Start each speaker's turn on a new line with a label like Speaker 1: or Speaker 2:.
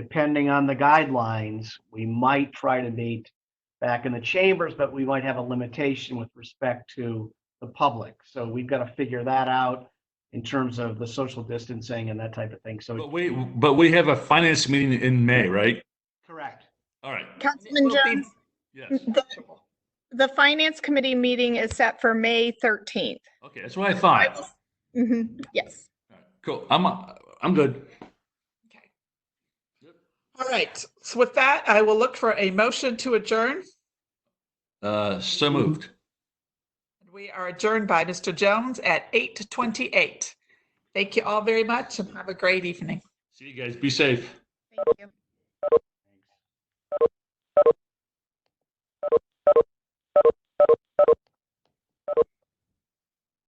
Speaker 1: depending on the guidelines, we might try to meet back in the chambers, but we might have a limitation with respect to the public. So we've got to figure that out in terms of the social distancing and that type of thing. So,
Speaker 2: But we, but we have a finance meeting in May, right?
Speaker 1: correct.
Speaker 2: All right.
Speaker 3: Councilman
Speaker 4: Will be-
Speaker 3: Jones,
Speaker 2: Yes.
Speaker 3: the, the finance committee meeting is set for May 13th.
Speaker 2: Okay, that's what I
Speaker 3: I
Speaker 2: thought.
Speaker 3: will- Mhm, yes.
Speaker 2: Cool. I'm, uh, I'm good.
Speaker 4: Okay.
Speaker 2: Yep.
Speaker 4: All right, so with that, I will look for a motion to adjourn.
Speaker 2: Uh, so moved.
Speaker 4: We are adjourned by Mr. Jones at 8:28. Thank you all very much and have a great evening.
Speaker 2: See you guys. Be safe.
Speaker 3: Thank you.